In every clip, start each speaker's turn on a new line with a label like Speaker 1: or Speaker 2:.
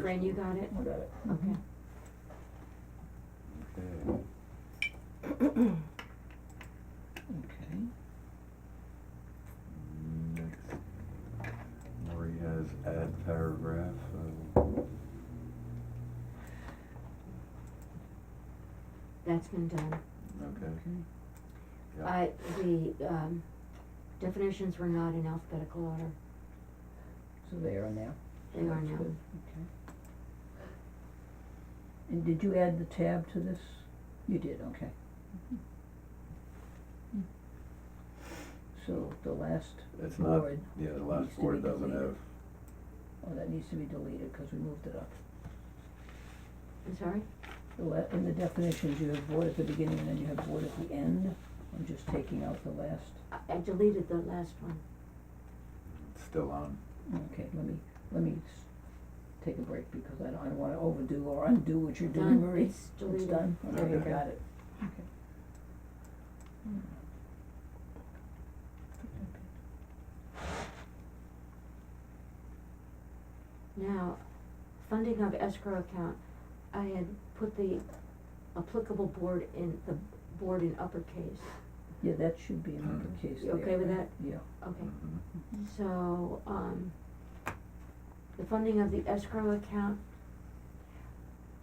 Speaker 1: Fran, you got it?
Speaker 2: I got it. Mm-hmm.
Speaker 1: Okay.
Speaker 3: Okay.
Speaker 2: Okay.
Speaker 3: Next, Marie has add paragraph, so,
Speaker 1: That's been done.
Speaker 3: okay, yeah.
Speaker 1: I, the, um, definitions were not in alphabetical order.
Speaker 2: So they are now?
Speaker 1: They are
Speaker 2: That's
Speaker 1: now.
Speaker 2: good, Okay. And did you add the tab to this? You did, okay. Mhm. Mm. So the last
Speaker 3: It's not,
Speaker 2: word,
Speaker 3: yeah, the
Speaker 2: needs
Speaker 3: last
Speaker 2: to
Speaker 3: word
Speaker 2: be
Speaker 3: doesn't
Speaker 2: deleted.
Speaker 3: have,
Speaker 2: oh, that needs to be deleted, cause we moved it up.
Speaker 1: I'm sorry?
Speaker 2: The la- in the definitions, you have board at the beginning and then you have board at the end, I'm just taking out the last,
Speaker 1: I I deleted the last one.
Speaker 3: it's still on.
Speaker 2: okay, let me, let me s- take a break, because I don't, I don't wanna overdo or undo what you're doing,
Speaker 1: Done.
Speaker 2: Marie.
Speaker 1: It's deleted.
Speaker 2: It's done, okay,
Speaker 3: Okay.
Speaker 2: got it, Hmm. okay.
Speaker 1: Now, funding of escrow account, I had put the applicable board in, the board in uppercase.
Speaker 2: Yeah, that should be in
Speaker 3: Mhm.
Speaker 2: uppercase
Speaker 1: Mm-hmm. You
Speaker 2: there,
Speaker 1: okay with Mm-hmm.
Speaker 2: right? Yeah.
Speaker 1: Okay.
Speaker 3: Mhm.
Speaker 1: So, um, the funding of the escrow account,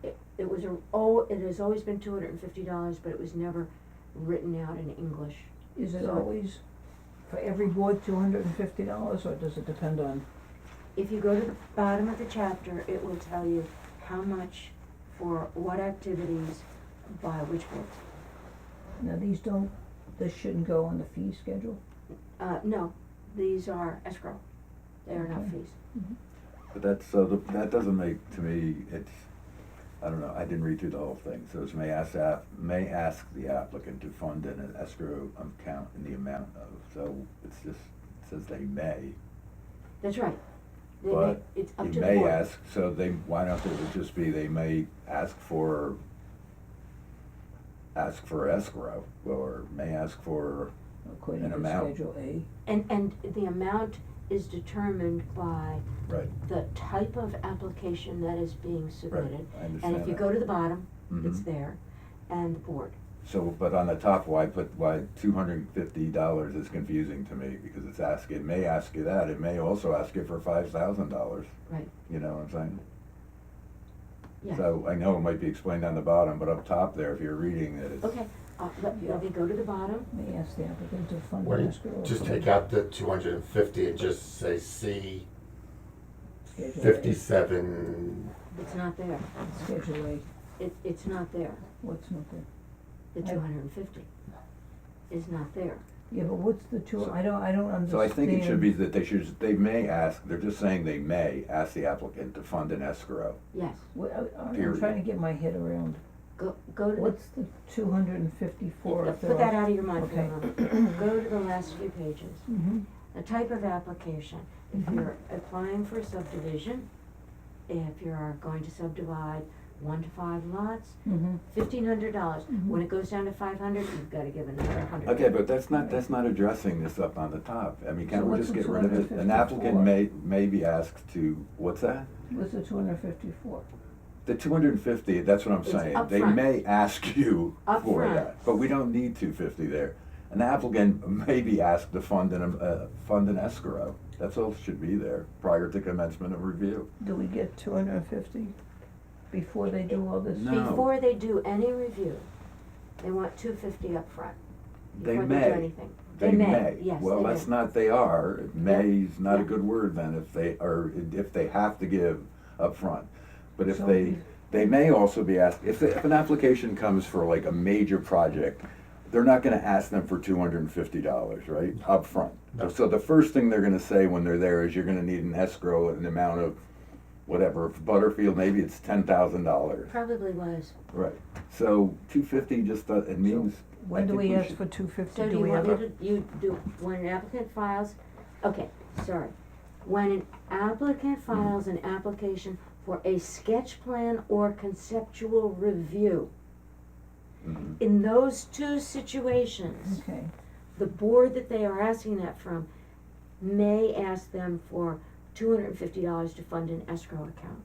Speaker 1: it, it was a, oh, it has always been two hundred and fifty dollars, but it was never written out in English.
Speaker 2: Is it
Speaker 1: So-
Speaker 2: always, for every board, two hundred and fifty dollars, or does it depend on,
Speaker 1: If you go to the bottom of the chapter, it will tell you how much for what activities by which boards.
Speaker 2: now these don't, this shouldn't go on the fee schedule?
Speaker 1: Uh, no, these are escrow, they are not
Speaker 2: Okay.
Speaker 1: fees.
Speaker 3: But that's, so the- that doesn't make, to me, it's, I don't know, I didn't read through the whole thing. So it's may ask, app- may ask the applicant to fund an escrow account in the amount of, so it's just, it says they may.
Speaker 1: That's right. They may,
Speaker 3: But
Speaker 1: it's up to
Speaker 3: You
Speaker 1: the board.
Speaker 3: may ask, so they, why not, it would just be, they may ask for, ask for escrow, or may ask for,
Speaker 2: According
Speaker 3: An
Speaker 2: to
Speaker 3: amount.
Speaker 2: Schedule A,
Speaker 1: And, and the amount is determined by
Speaker 3: right,
Speaker 1: the type of application that is being submitted.
Speaker 3: I understand
Speaker 1: And if you
Speaker 3: that.
Speaker 1: go to the bottom, it's
Speaker 3: Mhm.
Speaker 2: Mm-hmm.
Speaker 1: there, and the board.
Speaker 3: So, but on the top, why put, why two hundred and fifty dollars is confusing to me, because it's ask, it may ask you that, it may also ask you for five thousand dollars.
Speaker 1: Right.
Speaker 3: You know what I'm saying?
Speaker 1: Yeah.
Speaker 3: So I know it might be explained on the bottom, but up top there, if you're reading it, it's.
Speaker 1: Okay, uh, let, let me go to the bottom,
Speaker 2: may I ask the applicant to fund
Speaker 4: Wait,
Speaker 2: an escrow.
Speaker 4: Just take out the two hundred and fifty and just say C
Speaker 2: Schedule A.
Speaker 4: fifty-seven,
Speaker 1: it's not there,
Speaker 2: Schedule A,
Speaker 1: it, it's not there,
Speaker 2: what's not there?
Speaker 1: the
Speaker 2: Right.
Speaker 1: two hundred and fifty is not there.
Speaker 2: Yeah, but what's the two, I don't, I don't understand.
Speaker 3: So I think it should be that they should, they may ask, they're just saying they may ask the applicant to fund an escrow.
Speaker 1: Yes,
Speaker 2: Well, I- I, I'm
Speaker 3: Period.
Speaker 2: trying to get my head around,
Speaker 1: go, go to
Speaker 2: what's the two hundred and fifty-four
Speaker 1: the,
Speaker 2: if there
Speaker 1: put that
Speaker 2: are-
Speaker 1: out of your mind for a
Speaker 2: okay.
Speaker 1: moment, go to the last few pages.
Speaker 2: Mhm.
Speaker 1: The type of application, if
Speaker 2: Mhm.
Speaker 1: you're applying for subdivision, if you're going to subdivide one to five lots,
Speaker 2: Mhm.
Speaker 1: fifteen hundred dollars. When
Speaker 2: Mhm.
Speaker 1: it goes down to five hundred, you've gotta give another hundred.
Speaker 3: Okay, but that's not, that's not addressing this up on the top. I mean,
Speaker 2: So
Speaker 3: can't we
Speaker 2: what's
Speaker 3: just
Speaker 2: the
Speaker 3: get rid of it? An applicant
Speaker 2: 254?
Speaker 3: may, may be asked to, what's that?
Speaker 2: What's the two hundred and fifty-four?
Speaker 3: The two hundred and fifty, that's what I'm
Speaker 1: It's
Speaker 3: saying.
Speaker 1: up
Speaker 3: They
Speaker 1: front.
Speaker 3: may ask you
Speaker 1: Up
Speaker 3: for
Speaker 1: front.
Speaker 3: that, but we don't need two fifty there. An applicant may be asked to fund an, uh, fund an escrow. That's all that should be there prior to commencement of review.
Speaker 2: Do we get two hundred and fifty before they do all this?
Speaker 3: No.
Speaker 1: Before they do any review, they want two fifty up front.
Speaker 3: They
Speaker 1: Before they do
Speaker 3: may,
Speaker 1: anything.
Speaker 3: they may.
Speaker 1: yes,
Speaker 3: Well,
Speaker 1: they
Speaker 3: that's
Speaker 1: may.
Speaker 3: not, they are. May is not a
Speaker 1: Yeah.
Speaker 3: good word then if they, or if they have to give up front. But if
Speaker 2: So
Speaker 3: they,
Speaker 2: we-
Speaker 3: they may also be asked, if, if an application comes for like a major project, they're not gonna ask them for two hundred and fifty dollars, right, up front.
Speaker 4: No.
Speaker 3: So the first thing they're gonna say when they're there is you're gonna need an escrow, an amount of whatever, If Butterfield, maybe it's ten thousand dollars.
Speaker 1: Probably was.
Speaker 3: Right. So two fifty just, does- it means, I
Speaker 2: When do
Speaker 3: think
Speaker 2: we
Speaker 3: we
Speaker 2: ask
Speaker 3: should-
Speaker 2: for two fifty,
Speaker 1: So do
Speaker 2: do
Speaker 1: you
Speaker 2: we
Speaker 1: want
Speaker 2: have
Speaker 1: me
Speaker 2: a?
Speaker 1: to, you do, when an applicant files, okay, sorry. When an applicant files an application for a sketch plan or conceptual review,
Speaker 3: mhm.
Speaker 1: in those two situations,
Speaker 2: Okay,
Speaker 1: the board that they are asking that from may ask them for two hundred and fifty dollars to fund an escrow account.